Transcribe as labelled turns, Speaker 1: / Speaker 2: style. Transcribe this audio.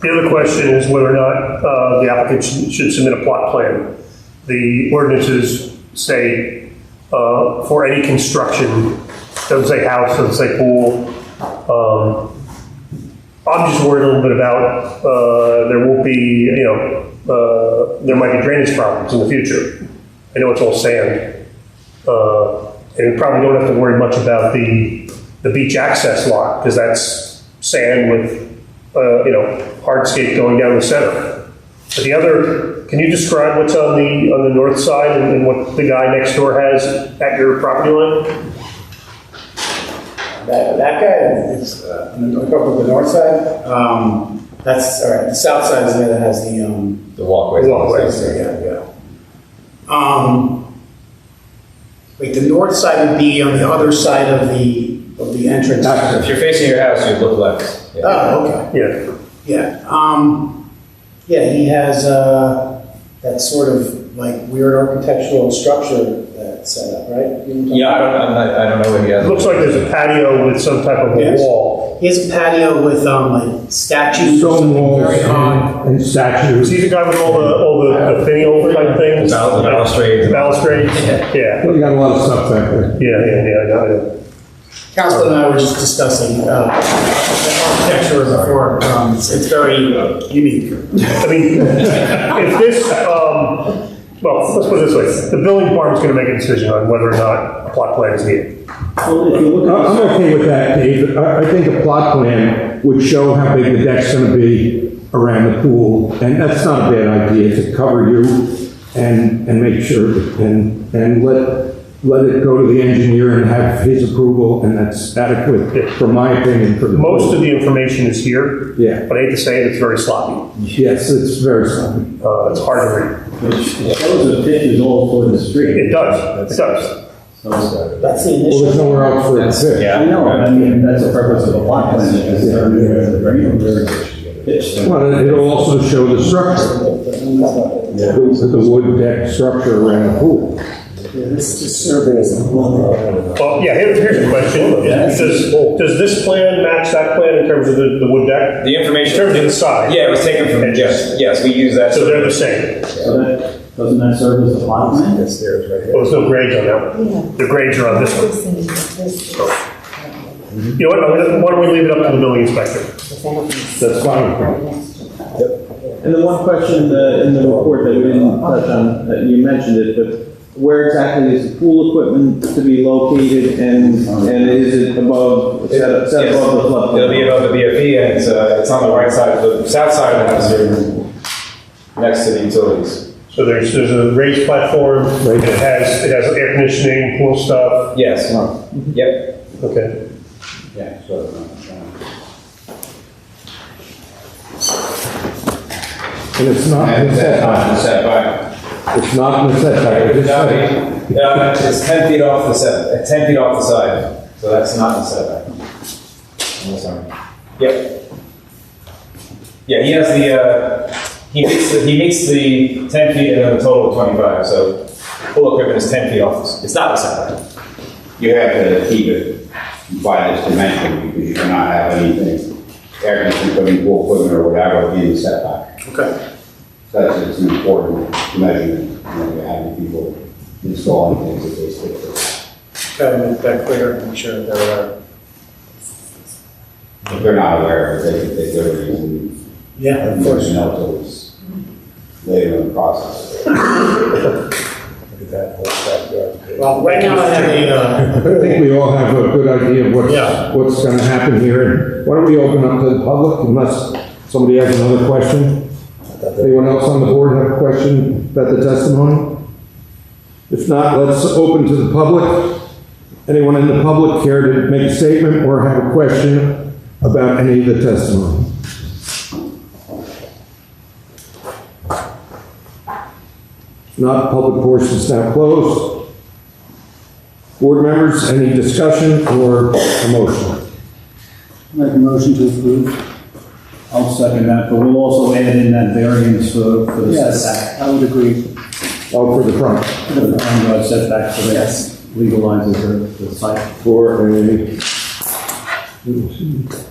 Speaker 1: The other question is whether or not uh, the applicant should should submit a plot plan. The ordinances say uh, for any construction, doesn't say house, doesn't say pool. Um, I'm just worried a little bit about, uh, there will be, you know, uh, there might be drainage problems in the future. I know it's all sand. Uh, And we probably don't have to worry much about the, the beach access lot, because that's sand with uh, you know, hardscape going down the center. But the other, can you describe what's on the, on the north side and and what the guy next door has at your property line?
Speaker 2: That, that guy is, uh, on the- up on the north side, um, that's, all right, the south side is the guy that has the, um,
Speaker 3: The walkway.
Speaker 2: walkways there, yeah, yeah. Um, wait, the north side would be on the other side of the, of the entrance.
Speaker 3: If you're facing your house, you look left. Yeah.
Speaker 2: Oh, okay,
Speaker 1: Yeah,
Speaker 2: yeah, um, yeah, he has, uh, that sort of like weird architectural structure that's set up, right? You know what I'm talking
Speaker 3: Yeah, I don't, I'm not, I don't know what he has.
Speaker 1: it looks like there's a patio with some type of a
Speaker 2: Yes.
Speaker 1: wall.
Speaker 2: He has a patio with um, like statues or
Speaker 4: Stone
Speaker 2: something
Speaker 4: walls
Speaker 2: very high.
Speaker 4: and and statues.
Speaker 1: See the guy with all the, all the the finial type
Speaker 3: The
Speaker 1: things?
Speaker 3: bal- the balustrades.
Speaker 1: Balustrades? Yeah,
Speaker 4: Well, you got a lot of stuff back there.
Speaker 1: yeah, yeah, yeah, I know, I know.
Speaker 2: Council and I were just discussing uh, the architecture before. Um, it's, it's very unique.
Speaker 1: I mean, if this, um, well, let's put it this way, the building department's gonna make a decision on whether or not a plot plan is needed.
Speaker 4: Well, if you look- I- I'm okay with that, Dave. I, I think a plot plan would show how big the deck's gonna be around the pool, and that's not a bad idea, to cover you and, and make sure, and, and let, let it go to the engineer and have his approval, and that's adequate, from my opinion, for the.
Speaker 1: Most of the information is here.
Speaker 4: Yeah.
Speaker 1: But I hate to say it, it's very sloppy.
Speaker 4: Yes, it's very sloppy.
Speaker 1: Uh, it's hard to read.
Speaker 5: Those are pictures all over the street.
Speaker 1: It does, it does.
Speaker 5: So,
Speaker 2: That's the
Speaker 4: Well, there's
Speaker 2: initial.
Speaker 4: nowhere else for it to fit.
Speaker 3: Yeah.
Speaker 5: I know, I mean, that's the purpose of a block plan, is to remove the very, very pitch.
Speaker 4: Well, and it'll also show the structure,
Speaker 5: Yeah.
Speaker 4: the, the wood deck structure around the pool.
Speaker 2: This just survey is a little-
Speaker 1: Well, yeah, here- here's a question. Does, does this plan match that plan in terms of the, the wood deck?
Speaker 3: The
Speaker 1: In
Speaker 3: information.
Speaker 1: terms of the size?
Speaker 3: Yeah, it was taken from,
Speaker 1: And
Speaker 3: yes, yes, we use that.
Speaker 1: So they're the same?
Speaker 5: So that, doesn't that serve as a block plan? That's there, right
Speaker 1: Well, there's no grades on that one. The grades are on this one.
Speaker 6: This is- this is-
Speaker 1: You know what, I'm gonna- why don't we leave it up to the building inspector?
Speaker 4: That's fine.
Speaker 7: And then one question in the, in the report that we didn't touch on, that you mentioned it, but where exactly is the pool equipment to be located and, and is it above, is that- is that
Speaker 3: Yes.
Speaker 7: above the flood?
Speaker 3: It'll be uh, above the BFE and it's, uh, it's on the right side, of the south side of the house here, next to the utilities.
Speaker 1: So there's, there's a raised platform, and it has, it has air conditioning, pool stuff.
Speaker 3: Yes, yep.
Speaker 1: Okay.
Speaker 5: Yeah, so, uh,
Speaker 4: And it's not in the setback.
Speaker 3: Setback.
Speaker 4: It's not in the setback. It is setback.
Speaker 3: Uh, It's ten feet off the set, uh, ten feet off the side, so that's not the setback. I'm sorry. Yep. Yeah, he has the, uh, he meets, the- he meets the ten feet and then a total of twenty-five, so pool equipment is ten feet off, the s- it's not the setback.
Speaker 8: You have to keep it by this dimension because you cannot have anything, air conditioning, equipment, pool equipment or whatever in the setback.
Speaker 2: Okay.
Speaker 8: So that's, it's an important measurement, you know, you're having people installing things that they stick to.
Speaker 2: Gotta make that clear and make sure they're, uh,
Speaker 8: If they're not aware, of it, they, they go to and
Speaker 2: yeah, of course.
Speaker 8: there's no tools later in the process.
Speaker 2: Well, right now I have a, uh,
Speaker 4: I think we all have a good idea of
Speaker 2: Yeah.
Speaker 4: what's, what's going to happen here. And Why don't we open up to the public unless somebody has another question? Anyone else on the board have a question about the testimony? If not, let's open to the public. Anyone in the public care to make a statement or have a question about any of the testimony? If Not, public portion is now closed. Board members, any discussion or a motion?
Speaker 5: Make a motion to approve. I'll second that, but we'll also add in that variance for, for the setback.
Speaker 2: I would agree.
Speaker 4: Oh, for the front,
Speaker 5: For the front yard setback, so
Speaker 2: Yes.
Speaker 5: that legalizes the- the site.
Speaker 4: for a